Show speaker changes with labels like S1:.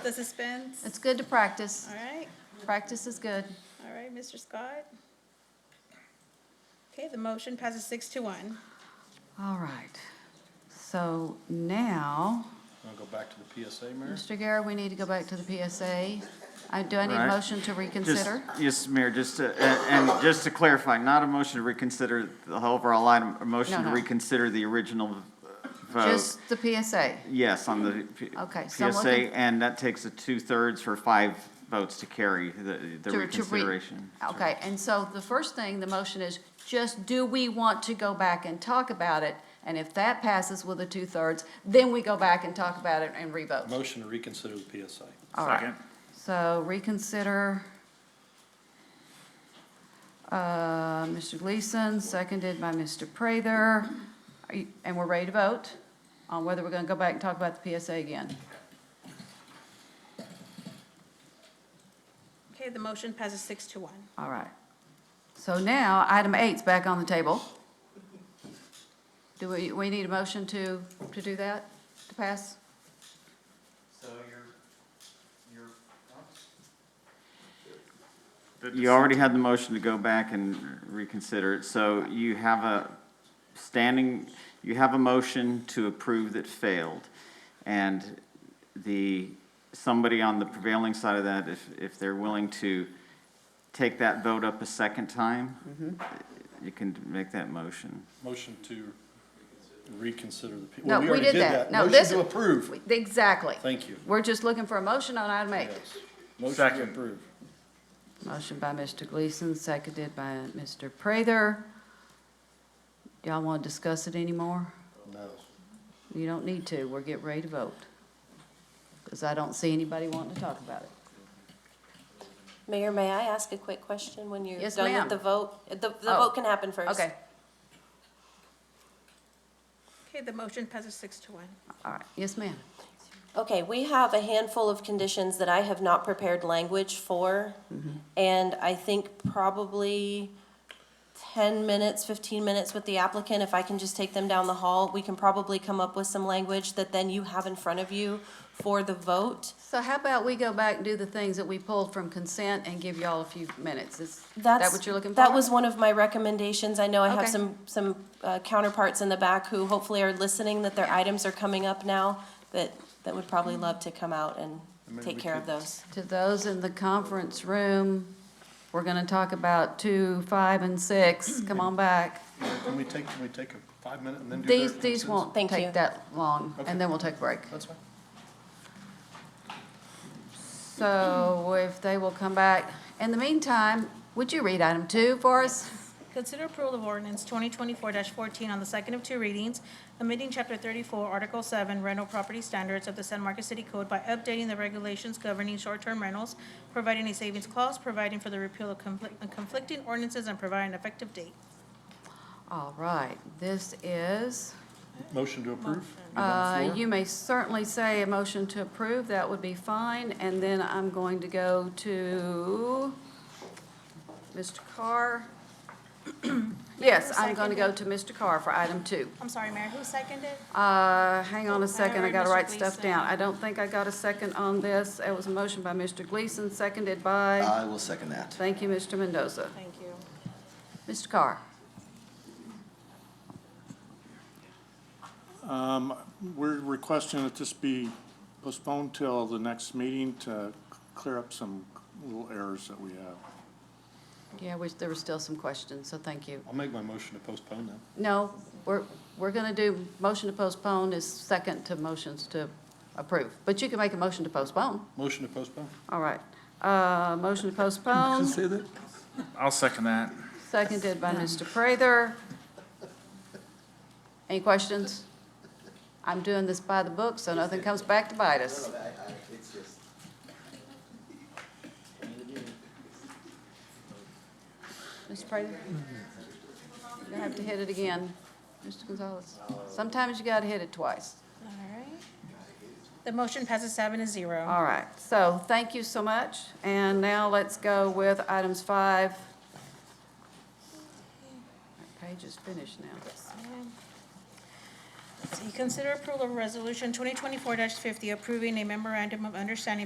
S1: the suspense?
S2: It's good to practice.
S1: All right,
S2: Practice is good.
S1: all right, Mr. Scott? Okay, the motion passes six to one.
S2: All right. So now,
S3: Want to go back to the PSA, Mayor?
S2: Mr. Guerra, we need to go back to the PSA. I- Do I need a
S4: Right.
S2: motion to
S4: Just-
S2: reconsider?
S4: Yes, Mayor, just to, and and just to clarify, not a motion to reconsider the whole overall item, a motion to
S2: no.
S4: reconsider the original uh, vote.
S2: Just the PSA.
S4: Yes, on the P-
S2: Okay, so I'm looking-
S4: PSA, and that takes a two-thirds for five votes to carry the
S2: to- to
S4: the
S2: re- Oh,
S4: reconsideration.
S2: Okay, and so the first thing, the motion is, just do we want to go back and talk about it? And if that passes with a two-thirds, then we go back and talk about it and revote.
S3: Motion to reconsider the PSA.
S2: All right. So reconsider. Uh, Mr. Gleason, seconded by Mr. Prather. Are you- And we're ready to vote on whether we're going to go back and talk about the PSA again.
S1: Okay, the motion passes six to one.
S2: All right. So now, item eight's back on the table. Do we, we need a motion to, to do that, to pass?
S4: So you're, you're. You already had the motion to go back and reconsider it, so you have a standing, you have a motion to approve that failed. And the, somebody on the prevailing side of that, if, if they're willing to take that vote up a second time, you can make that motion.
S3: Motion to reconsider the. P-
S2: No,
S3: well,
S2: we
S3: already
S2: did that. No,
S3: Motion
S2: this-
S3: to approve.
S2: Exactly.
S3: Thank you.
S2: We're just looking for a motion on item eight.
S3: Yes. Motion to
S5: Second.
S3: approve.
S2: Motion by Mr. Gleason, seconded by Mr. Prather. Y'all want to discuss it anymore?
S3: No.
S2: You don't need to, we're getting ready to vote. Because I don't see anybody wanting to talk about it.
S6: Mayor, may I ask a quick question when you're
S2: Yes,
S6: done
S2: ma'am.
S6: with the vote? The, the
S2: Oh.
S6: vote can happen first.
S2: Okay,
S1: Okay, the motion passes six to one.
S2: all right, yes, ma'am.
S6: Okay, we have a handful of conditions that I have not prepared language for.
S2: Mm-hmm.
S6: And I think probably ten minutes, fifteen minutes with the applicant, if I can just take them down the hall, we can probably come up with some language that then you have in front of you for the vote.
S2: So how about we go back and do the things that we pulled from consent and give y'all a few minutes? Is that
S6: That's
S2: what you're looking for?
S6: That was one of my recommendations. I know I
S2: Okay.
S6: have some, some uh, counterparts in the back who hopefully are listening, that their items are coming up now, that, that would probably
S2: Mm-hmm.
S6: love to come out and take care of those.
S2: To those in the conference room, we're gonna talk about two, five, and six. Come on back.
S3: Can we take, can we take a five minute and then do their
S2: These, these
S3: consents?
S2: won't
S6: Thank you.
S2: take that long,
S3: Okay.
S2: and then we'll take a break.
S3: That's fine.
S2: So if they will come back, in the meantime, would you read item two for us?
S1: Consider approval of ordinance twenty twenty-four fourteen on the second of two readings, amending chapter thirty-four, article seven, rental property standards of the San Marcos City Code by updating the regulations governing short-term rentals, providing a savings clause, providing for the repeal of conflict- conflicting ordinances, and providing an effective date.
S2: All right, this is,
S3: Motion to approve. You're on the
S2: uh,
S3: floor.
S2: you may certainly say a motion to approve, that would be fine, and then I'm going to go to Mr. Carr. Yes, I'm going to go to Mr. Carr for item two.
S1: I'm sorry, Mayor, who seconded?
S2: Uh, hang on a second, I
S1: heard
S2: gotta
S1: Mr.
S2: write stuff
S1: Gleason.
S2: down. I don't think I got a second on this. It was a motion by Mr. Gleason, seconded by,
S7: I will second that.
S2: thank you, Mr. Mendoza.
S1: Thank you.
S2: Mr. Carr?
S5: We're requesting that this be postponed till the next meeting to clear up some little errors that we have.
S2: Yeah, we, there were still some questions, so thank you.
S3: I'll make my motion to postpone then.
S2: No, we're, we're gonna do, motion to postpone is second to motions to approve, but you can make a motion to postpone.
S3: Motion to postpone.
S2: All right, uh, motion to postpone,
S3: that.
S5: I'll second that.
S2: seconded by Mr. Prather. Any questions? I'm doing this by the book, so nothing comes back to bite us. Mr. Prather? You have to hit it again, Mr. Gonzalez. Sometimes you gotta hit it twice.
S1: All right. The motion passes seven to zero.
S2: All right, so thank you so much, and now let's go with items five. That page is finished now.
S1: Let's see, Consider approval of resolution twenty twenty-four fifty, approving a memorandum of understanding